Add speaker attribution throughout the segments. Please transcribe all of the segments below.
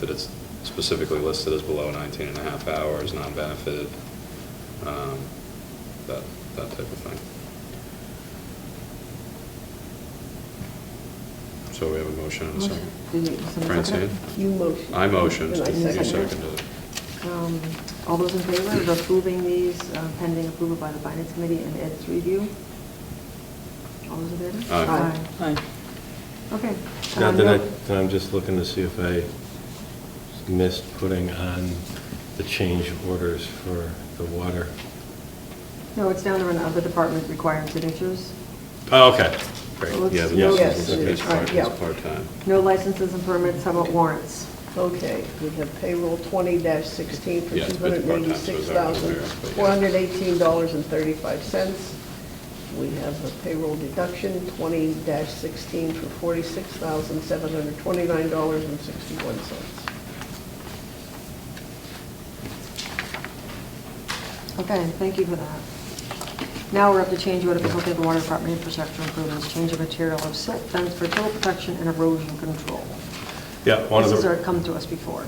Speaker 1: that it's specifically listed as below 19 and a half hours, non-benefited, um, that, that type of thing. So we have a motion and a second.
Speaker 2: Did you- someone second it?
Speaker 1: Francine?
Speaker 3: You motion.
Speaker 1: I motioned,
Speaker 3: And I
Speaker 1: you
Speaker 3: seconded.
Speaker 1: seconded it.
Speaker 2: Um, All those in favor of approving these uh, pending approval by the Finance Committee and Ed's review? All those in favor?
Speaker 1: Aye.
Speaker 3: Aye.
Speaker 2: Okay.
Speaker 4: Now,
Speaker 2: Uh,
Speaker 4: did I,
Speaker 2: no-
Speaker 4: then I'm just looking to see if I missed putting on the change orders for the water.
Speaker 2: No, it's down there in the other department requiring signatures.
Speaker 4: Oh, okay.
Speaker 2: Great.
Speaker 1: Yeah, the
Speaker 2: Yes,
Speaker 1: license
Speaker 3: yes,
Speaker 1: is
Speaker 3: yes, right,
Speaker 1: part-
Speaker 3: yeah.
Speaker 1: is part-time.
Speaker 2: No licenses and permits, how about warrants?
Speaker 3: Okay, we have payroll twenty sixteen for
Speaker 1: Yeah,
Speaker 3: two
Speaker 1: it's been
Speaker 3: hundred
Speaker 1: part time, so
Speaker 3: ninety-six
Speaker 1: it's out of
Speaker 3: thousand,
Speaker 1: there, but yeah.
Speaker 3: four hundred eighteen dollars and thirty-five cents. We have the payroll deduction, twenty sixteen for forty-six thousand, seven hundred twenty-nine dollars and sixty-one cents.
Speaker 2: Okay, thank you for that. Now we're up to change order for Hillcrest Water Department infrastructure improvements, change of material of silt fence for total protection and erosion control.
Speaker 4: Yeah, one
Speaker 2: This
Speaker 4: of the.
Speaker 2: has already come to us before.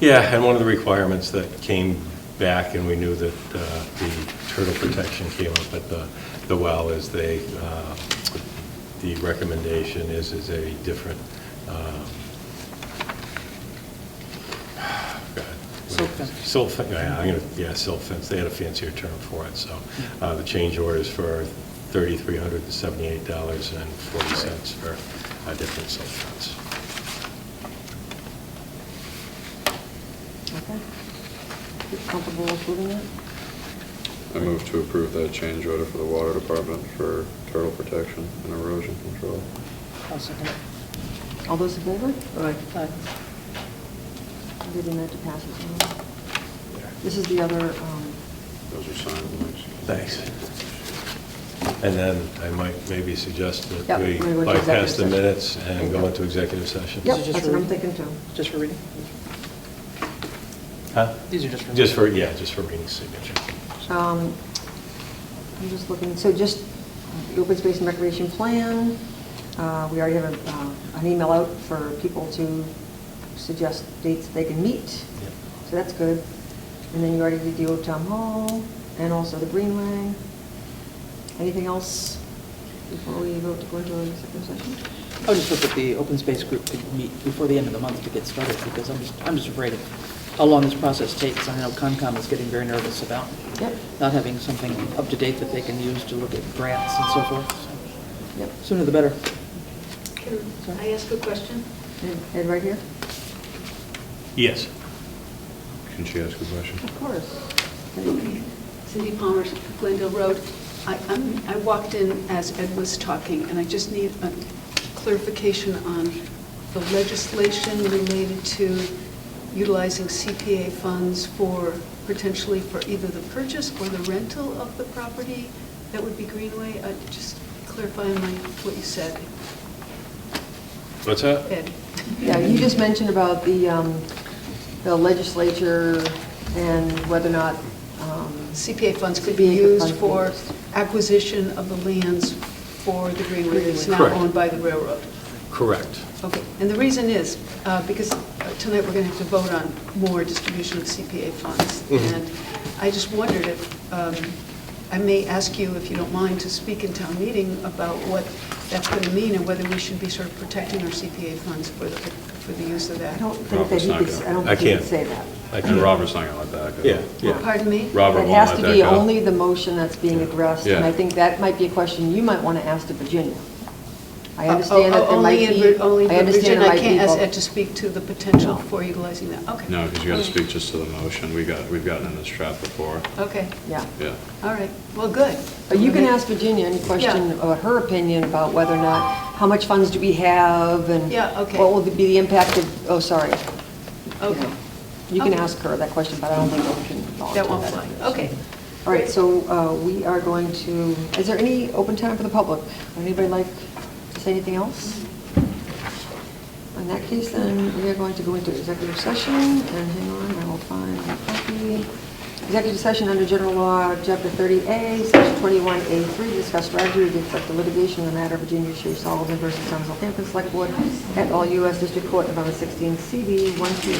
Speaker 4: Yeah, and one of the requirements that came back, and we knew that uh, the turtle protection came up at the, the well, is they, uh, the recommendation is, is a different, um, God.
Speaker 5: Silt fence.
Speaker 4: Silt fe- yeah, I'm gonna, yeah, silt fence, they had a fancier term for it, so,
Speaker 5: Mm-hmm.
Speaker 4: uh, the change order is for thirty-three hundred and seventy-eight dollars and forty cents for a different silt fence.
Speaker 2: Okay? You Comfortable approving it?
Speaker 1: I move to approve that change order for the water department for turtle protection and erosion control.
Speaker 5: I'll second Uh, it.
Speaker 2: All those in favor?
Speaker 3: Aye.
Speaker 5: Aye.
Speaker 2: I'm Getting that to pass as well. This is the other, um,
Speaker 1: Those are signed ones.
Speaker 4: Thanks. And then I might maybe suggest
Speaker 2: Yep,
Speaker 4: that we
Speaker 2: we would
Speaker 4: bypass
Speaker 2: executive
Speaker 4: the
Speaker 2: session.
Speaker 4: minutes and go into executive session.
Speaker 2: yep,
Speaker 5: This is just
Speaker 2: that's what I'm
Speaker 5: for-
Speaker 2: thinking too.
Speaker 5: Just for reading?
Speaker 4: Huh?
Speaker 5: These are just for.
Speaker 4: Just for, yeah, just for reading signature.
Speaker 2: Um, I'm just looking, so just the open space and recreation plan, uh, we already have a, uh, an email out for people to suggest dates they can meet,
Speaker 4: Yep.
Speaker 2: so that's good. And then you already did the old town hall, and also the greenway. Anything else before we vote to go into a second session?
Speaker 5: I would just hope that the open space group could meet before the end of the month to get started, because I'm just, I'm just afraid of how long this process takes. I know Concom is getting very nervous about
Speaker 2: Yep,
Speaker 5: not having something up to date that they can use to look at grants and so forth.
Speaker 2: yep,
Speaker 5: So Sooner the better.
Speaker 6: Can I ask a question?
Speaker 2: Ed- Ed right here?
Speaker 4: Yes.
Speaker 1: Can she ask a question?
Speaker 2: Of course.
Speaker 6: Cindy Palmer, Glendale Road. I, I'm- I walked in as Ed was talking, and I just need a clarification on the legislation related to utilizing CPA funds for, potentially for either the purchase or the rental of the property that would be Greenway. Uh, Just clarify my, what you said,
Speaker 4: What's that?
Speaker 6: Ed.
Speaker 2: Yeah, you just mentioned about the um, the legislature and whether or not, um,
Speaker 6: CPA funds could
Speaker 2: CPA
Speaker 6: be used
Speaker 2: funds
Speaker 6: for
Speaker 2: could be
Speaker 6: acquisition of the lands for the Greenway that's now
Speaker 4: Correct.
Speaker 6: owned by the railroad.
Speaker 4: Correct.
Speaker 6: Okay, and the reason is, uh, because tonight we're going to have to vote on more distribution of CPA funds.
Speaker 4: Mhm.
Speaker 6: And I just wondered if, um, I may ask you, if you don't mind, to speak in town meeting about what that's going to mean and whether we should be sort of protecting our CPA funds for the, for the use of that.
Speaker 2: I don't think that he could, I don't
Speaker 4: I
Speaker 2: think he could
Speaker 4: can't.
Speaker 2: say that.
Speaker 4: I
Speaker 1: And
Speaker 4: can
Speaker 1: Robert's not gonna let that go.
Speaker 4: Yeah, yeah.
Speaker 6: Pardon me?
Speaker 1: Robert won't
Speaker 2: It has
Speaker 1: let
Speaker 2: to
Speaker 1: that
Speaker 2: be
Speaker 1: go.
Speaker 2: only the motion that's being addressed, and I
Speaker 1: Yeah.
Speaker 2: think that might be a question you might want to ask to Virginia. I
Speaker 6: Uh,
Speaker 2: understand
Speaker 6: oh,
Speaker 2: that there
Speaker 6: oh,
Speaker 2: might
Speaker 6: only in
Speaker 2: be,
Speaker 6: Vir- Only
Speaker 2: I
Speaker 6: in
Speaker 2: understand
Speaker 6: Virginia,
Speaker 2: there might
Speaker 6: I
Speaker 2: be.
Speaker 6: can't ask
Speaker 2: vote-
Speaker 6: Ed to speak to the potential
Speaker 2: No.
Speaker 6: for utilizing that, okay.
Speaker 1: No, because you gotta speak just to the motion. We got, we've gotten in this trap before.
Speaker 6: Okay,
Speaker 2: Yeah,
Speaker 1: Yeah.
Speaker 6: all right, well, good.
Speaker 2: but you can ask Virginia any question,
Speaker 6: Yeah.
Speaker 2: about her opinion about whether or not, how much funds do we have, and
Speaker 6: Yeah, okay.
Speaker 2: what will be the impact of, oh, sorry.
Speaker 6: Okay,
Speaker 2: You can
Speaker 6: Okay.
Speaker 2: ask her that question, but I don't think we can. volunteer
Speaker 6: that won't fly, okay.
Speaker 2: All right, so uh, we are going to, is there any open time for the public? Would anybody like to say anything else? In that case, then, we are going to go into executive session, and hang on, I will find the copy. Executive session under general law, chapter 30A, section 21A3, to discuss strategy with respect to litigation in the matter of Virginia Shea Sullivan versus Town of Southampton Select Board at all U.S. District Court, November 16, CB 128.